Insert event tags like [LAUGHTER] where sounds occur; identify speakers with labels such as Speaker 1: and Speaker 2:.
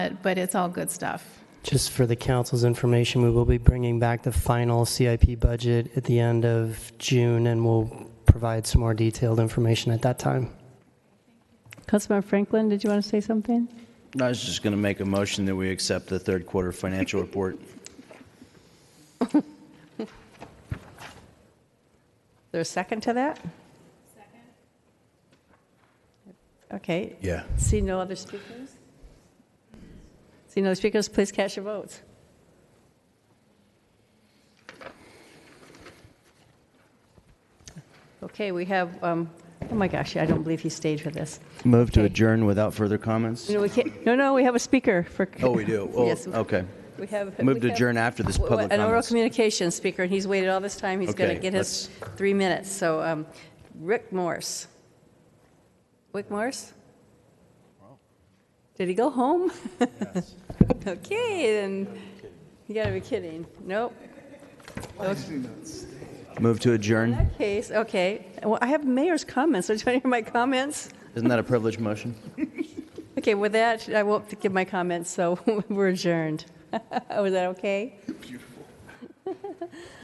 Speaker 1: but- but it's all good stuff.
Speaker 2: Just for the council's information, we will be bringing back the final CIP budget at the end of June, and we'll provide some more detailed information at that time.
Speaker 3: Councilmember Franklin, did you want to say something?
Speaker 4: I was just going to make a motion that we accept the third quarter financial report.
Speaker 5: There's a second to that? Second. Okay.
Speaker 4: [LAUGHS] Yeah.
Speaker 3: See no other speakers? See no speakers, please cast your votes. Okay, we have, um, oh my gosh, I don't believe he stayed for this.
Speaker 4: Move to
Speaker 3: Okay.
Speaker 4: adjourn without furtther comments?
Speaker 3: No, we can't, no, no, we have a speaker for.
Speaker 4: Oh,
Speaker 3: [LAUGHS]
Speaker 4: we do? Oh,
Speaker 3: Yes.
Speaker 4: Okay.
Speaker 3: We have.
Speaker 4: Move
Speaker 3: we
Speaker 4: to
Speaker 3: have-
Speaker 4: adjourn after this
Speaker 3: w-
Speaker 4: public
Speaker 3: An oral
Speaker 4: comments.
Speaker 3: communications speaker, and he's waited all this time, he's going
Speaker 4: Okay,
Speaker 3: to get his three minutes. So um, Rick Morse. Rick Morse? Did he go home? [LAUGHS] Okay, then, you got to be kidding. Nope.
Speaker 4: Move to adjourn?
Speaker 3: That case, okay. Well, I have mayor's comments, do you want to hear my comments?
Speaker 4: Isn't that a privileged motion?
Speaker 3: Okay, with that, I won't give my [LAUGHS] comments, so we're adjourned. Was that okay?